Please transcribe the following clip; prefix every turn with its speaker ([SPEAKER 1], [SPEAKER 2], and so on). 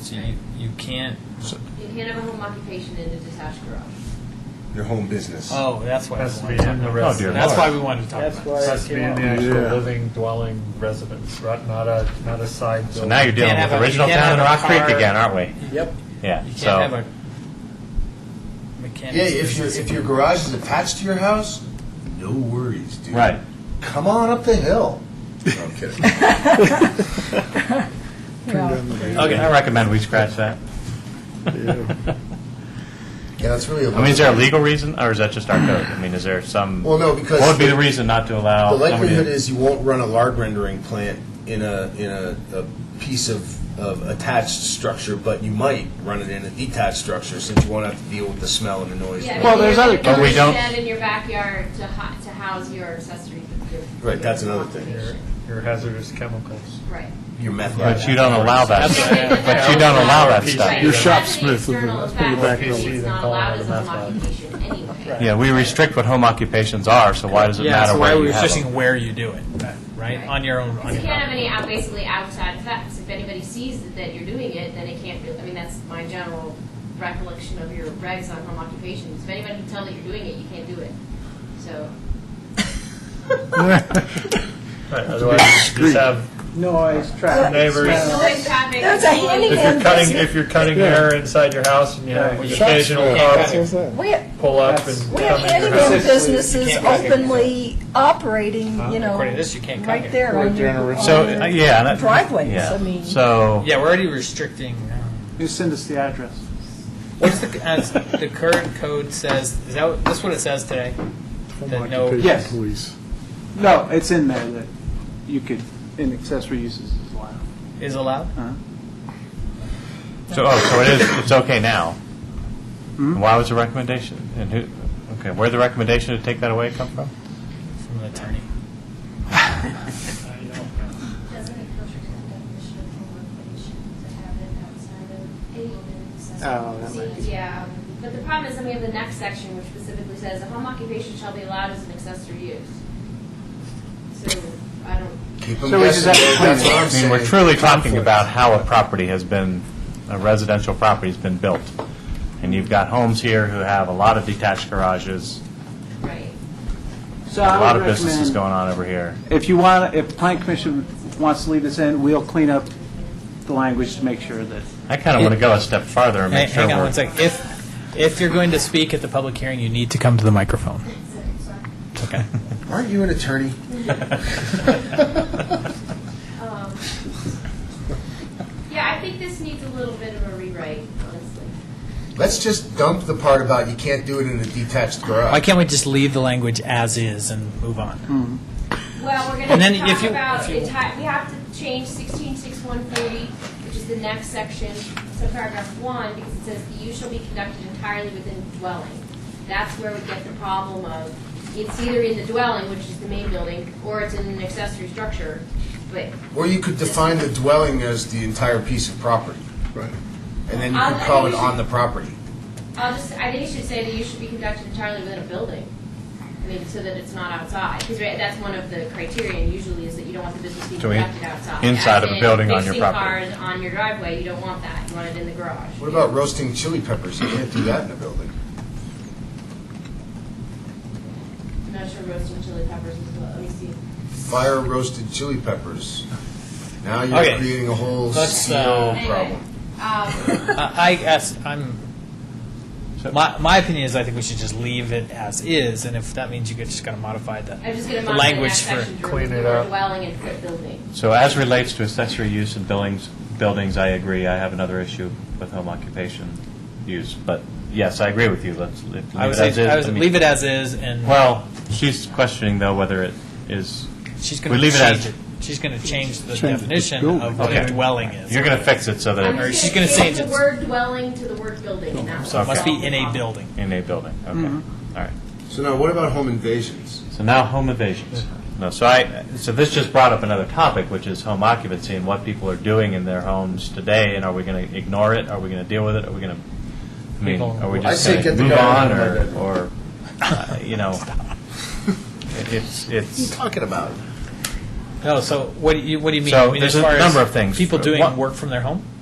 [SPEAKER 1] So you, you can't.
[SPEAKER 2] You can't have a home occupation in a detached garage.
[SPEAKER 3] Your home business.
[SPEAKER 4] Uh,
[SPEAKER 1] Oh, that's why.
[SPEAKER 5] Has to
[SPEAKER 1] we
[SPEAKER 5] be
[SPEAKER 1] wanted to
[SPEAKER 5] in the
[SPEAKER 1] talk about it.
[SPEAKER 5] residence.
[SPEAKER 1] That's why we wanted to talk
[SPEAKER 6] That's
[SPEAKER 1] about
[SPEAKER 6] why
[SPEAKER 1] it.
[SPEAKER 6] it
[SPEAKER 5] Has to be in the
[SPEAKER 6] came out.
[SPEAKER 5] actual
[SPEAKER 3] Yeah.
[SPEAKER 5] living dwelling residence, right? Not a not a side.
[SPEAKER 4] So now you're dealing
[SPEAKER 1] Can't
[SPEAKER 4] with
[SPEAKER 1] have a-
[SPEAKER 4] original
[SPEAKER 1] can't
[SPEAKER 4] town
[SPEAKER 1] have a
[SPEAKER 4] and Rock Creek
[SPEAKER 1] car.
[SPEAKER 4] again, aren't we?
[SPEAKER 6] Yep.
[SPEAKER 4] Yeah.
[SPEAKER 1] You can't
[SPEAKER 4] so
[SPEAKER 1] have a mechanic.
[SPEAKER 3] Yeah, if your if your garage is attached to your house, no worries, dude.
[SPEAKER 4] right.
[SPEAKER 3] Come on up the hill. No, I'm kidding.
[SPEAKER 4] Okay. I recommend we scratch that.
[SPEAKER 3] Yeah, that's really. A
[SPEAKER 4] I mean, is there a legal reason, or is that just our code? I mean, is there some?
[SPEAKER 3] Well, no, because
[SPEAKER 4] what would be
[SPEAKER 3] the-
[SPEAKER 4] the reason not to
[SPEAKER 3] The
[SPEAKER 4] allow? somebody
[SPEAKER 3] likelihood
[SPEAKER 4] to-
[SPEAKER 3] is you won't run a lard rendering plant in a in a, a piece of, of attached structure, but you might run it in a detached structure since you won't have to deal with the smell and the noise.
[SPEAKER 2] Yeah, I
[SPEAKER 4] Well,
[SPEAKER 2] mean,
[SPEAKER 4] there's
[SPEAKER 2] you're
[SPEAKER 4] other-
[SPEAKER 2] gonna
[SPEAKER 4] But we
[SPEAKER 2] put a
[SPEAKER 4] don't-
[SPEAKER 2] shed in your backyard to ho- to house your accessory. your-
[SPEAKER 3] Right, that's another thing.
[SPEAKER 5] Your, your hazardous chemicals.
[SPEAKER 2] Right.
[SPEAKER 3] Your meth.
[SPEAKER 4] But
[SPEAKER 3] lab.
[SPEAKER 4] you don't allow that. but
[SPEAKER 5] Yeah.
[SPEAKER 4] you don't allow that stuff.
[SPEAKER 2] Right,
[SPEAKER 5] Your
[SPEAKER 2] so
[SPEAKER 5] shop
[SPEAKER 2] that's an
[SPEAKER 6] smith is
[SPEAKER 2] external
[SPEAKER 6] in- that's
[SPEAKER 2] effect,
[SPEAKER 5] pretty back
[SPEAKER 2] which
[SPEAKER 5] room.
[SPEAKER 2] is not
[SPEAKER 5] Call it
[SPEAKER 2] allowed as a
[SPEAKER 5] a
[SPEAKER 2] home
[SPEAKER 5] meth lab.
[SPEAKER 2] occupation anyway.
[SPEAKER 4] Yeah, we restrict what home occupations are. So why does it
[SPEAKER 1] yeah,
[SPEAKER 4] matter
[SPEAKER 1] so why
[SPEAKER 4] where
[SPEAKER 1] are we
[SPEAKER 4] you have
[SPEAKER 1] restricting
[SPEAKER 4] them?
[SPEAKER 1] where you do it, uh, right? On your own. On
[SPEAKER 2] You
[SPEAKER 1] your
[SPEAKER 2] can't have
[SPEAKER 1] own.
[SPEAKER 2] any out, basically outside effects. If anybody sees that- that you're doing it, then it can't really, I mean, that's my general recollection of your regs on home occupations. If anybody can tell that you're doing it, you can't do it. So,
[SPEAKER 5] Right. Otherwise, you just have
[SPEAKER 6] Noise, traffic.
[SPEAKER 5] Neighbors.
[SPEAKER 6] smell.
[SPEAKER 2] noise, traffic.
[SPEAKER 7] That's a handyman.
[SPEAKER 5] if you're cutting
[SPEAKER 7] business.
[SPEAKER 5] if you're cutting hair inside your house and you have an occasional car
[SPEAKER 7] We have,
[SPEAKER 5] pull up and
[SPEAKER 7] we have
[SPEAKER 5] come in your
[SPEAKER 7] handyman
[SPEAKER 5] house.
[SPEAKER 7] businesses
[SPEAKER 1] You can't cut
[SPEAKER 7] openly operating, you know,
[SPEAKER 1] According to this, you can't cut
[SPEAKER 7] right
[SPEAKER 1] it.
[SPEAKER 7] there on your
[SPEAKER 4] So
[SPEAKER 7] on
[SPEAKER 4] uh,
[SPEAKER 7] your
[SPEAKER 4] yeah, that,
[SPEAKER 7] driveways.
[SPEAKER 4] Yeah.
[SPEAKER 7] I mean,
[SPEAKER 4] so
[SPEAKER 1] Yeah, we're already restricting. um,
[SPEAKER 6] You send us the address.
[SPEAKER 1] What's the as the current code says? Is that what- that's what it says today? That no.
[SPEAKER 6] Yes. No, it's in there that you could, in accessory uses is allowed.
[SPEAKER 1] is allowed.
[SPEAKER 4] so oh, so it is. It's okay now.
[SPEAKER 3] Hmm?
[SPEAKER 6] Hmm?
[SPEAKER 4] Why was the recommendation? And who? Okay, where would the recommendation to take that away come from?
[SPEAKER 1] From an attorney.
[SPEAKER 8] Doesn't it filter to the definition of home occupation to have it outside of any
[SPEAKER 6] Oh,
[SPEAKER 8] building
[SPEAKER 6] that might
[SPEAKER 8] accessory?
[SPEAKER 2] See, Yeah, but the problem is, then we have the next section which specifically says, "A home occupation shall be allowed as an accessory use." So, I don't,
[SPEAKER 3] Keep 'em
[SPEAKER 6] So we just
[SPEAKER 3] guessing,
[SPEAKER 6] have to
[SPEAKER 3] that's
[SPEAKER 6] clean
[SPEAKER 3] what
[SPEAKER 6] it.
[SPEAKER 3] I'm
[SPEAKER 4] I mean,
[SPEAKER 3] saying.
[SPEAKER 4] we're truly talking
[SPEAKER 3] Conflict.
[SPEAKER 4] about how a property has been, a residential property has been built. And you've got homes here who have a lot of detached garages,
[SPEAKER 2] right.
[SPEAKER 6] So
[SPEAKER 4] a
[SPEAKER 6] I
[SPEAKER 4] lot of
[SPEAKER 6] would
[SPEAKER 4] businesses
[SPEAKER 6] recommend,
[SPEAKER 4] going on over here.
[SPEAKER 6] if you want, if Plan Commission wants to leave this in, we'll clean up the language to make sure that
[SPEAKER 4] I kind of want to go a step farther and
[SPEAKER 1] Hang,
[SPEAKER 4] make sure
[SPEAKER 1] hang on
[SPEAKER 4] we're.
[SPEAKER 1] one second. If if you're going to speak at the public hearing, you need to come to the microphone. It's okay.
[SPEAKER 3] Aren't you an attorney?
[SPEAKER 2] Um, Yeah, I think this needs a little bit of a rewrite, honestly.
[SPEAKER 3] Let's just dump the part about you can't do it in a detached
[SPEAKER 1] Why
[SPEAKER 3] garage.
[SPEAKER 1] can't we just leave the language as is and move on?
[SPEAKER 2] Well, we're
[SPEAKER 1] And then
[SPEAKER 2] going to
[SPEAKER 1] if
[SPEAKER 2] talk
[SPEAKER 1] you-
[SPEAKER 2] about,
[SPEAKER 1] if you-
[SPEAKER 2] enti- we have to change sixteen six one forty, which is the next section, so paragraph one, because it says the use shall be conducted entirely within the dwelling. That's where we get the problem of, it's either in the dwelling, which is the main building, or it's in an accessory structure, but
[SPEAKER 3] Or you could define the dwelling as the entire piece of property. Right. And then you could call it on the property.
[SPEAKER 2] I'll just, I think you should say that you should be conducted entirely within a building. I mean, so that it's not outside, because that's one of the criteria usually is that you don't want the business being
[SPEAKER 4] So in-
[SPEAKER 2] conducted outside.
[SPEAKER 4] inside of a
[SPEAKER 2] As in
[SPEAKER 4] building on your property.
[SPEAKER 2] Fixing cars on your driveway, you don't want that, you want it in the garage.
[SPEAKER 3] What about roasting chili peppers? You can't do that in a building.
[SPEAKER 2] I'm not sure roasting chili peppers is, what- let me see.
[SPEAKER 3] Fire roasted chili peppers. Now you're
[SPEAKER 1] Okay.
[SPEAKER 3] creating a whole
[SPEAKER 1] Let's, uh,
[SPEAKER 3] CO
[SPEAKER 2] Anyway,
[SPEAKER 3] problem.
[SPEAKER 2] um,
[SPEAKER 1] I I guess I'm. My, my opinion is I think we should just leave it as is, and if that means you could just got to modify the,
[SPEAKER 2] I'm just gonna
[SPEAKER 1] the
[SPEAKER 2] modify the
[SPEAKER 1] language
[SPEAKER 2] next
[SPEAKER 1] for.
[SPEAKER 2] section to
[SPEAKER 5] clean
[SPEAKER 2] remove
[SPEAKER 5] it
[SPEAKER 2] the word
[SPEAKER 5] up.
[SPEAKER 2] dwelling and put building.
[SPEAKER 4] So as relates to accessory use in buildings, buildings, I agree. I have another issue with home occupation use, but yes, I agree with you. Let's leave it
[SPEAKER 1] I would
[SPEAKER 4] as
[SPEAKER 1] say
[SPEAKER 4] is.
[SPEAKER 1] I would
[SPEAKER 4] mean-
[SPEAKER 1] leave it as is, and
[SPEAKER 4] Well, she's questioning though whether it is,
[SPEAKER 1] she's going
[SPEAKER 4] we
[SPEAKER 1] to
[SPEAKER 4] leave it as-
[SPEAKER 1] change it. She's going to change the definition of what
[SPEAKER 4] Okay.
[SPEAKER 1] a dwelling is.
[SPEAKER 4] you're going to fix it so that
[SPEAKER 2] I'm
[SPEAKER 4] it
[SPEAKER 1] Or
[SPEAKER 2] just
[SPEAKER 1] she's gonna change
[SPEAKER 2] the
[SPEAKER 1] it.
[SPEAKER 2] word dwelling to the word building, and that Um,
[SPEAKER 1] so it
[SPEAKER 2] will
[SPEAKER 1] must
[SPEAKER 2] solve
[SPEAKER 1] be
[SPEAKER 2] the
[SPEAKER 1] in a
[SPEAKER 2] problem.
[SPEAKER 1] building.
[SPEAKER 4] in a building. Okay, all right.
[SPEAKER 3] So now, what about home invasions?
[SPEAKER 4] So now home evasions. No, so I, so this just brought up another topic, which is home occupancy and what people are doing in their homes today, and are we going to ignore it? Are we going to deal with it? Are we going to, I mean,
[SPEAKER 1] People-
[SPEAKER 4] are we
[SPEAKER 3] I
[SPEAKER 4] just
[SPEAKER 3] say
[SPEAKER 4] going to
[SPEAKER 3] get the
[SPEAKER 4] move
[SPEAKER 3] guy
[SPEAKER 4] on,
[SPEAKER 3] out of my
[SPEAKER 4] or,
[SPEAKER 3] bedroom.
[SPEAKER 4] or, uh, you know? it- It's, it's,
[SPEAKER 3] Talking about
[SPEAKER 1] No, so what do you what do you mean?
[SPEAKER 4] So
[SPEAKER 1] I mean,
[SPEAKER 4] there's
[SPEAKER 1] as
[SPEAKER 4] a
[SPEAKER 1] far as
[SPEAKER 4] number of things.
[SPEAKER 1] People doing
[SPEAKER 4] One-
[SPEAKER 1] work from their home.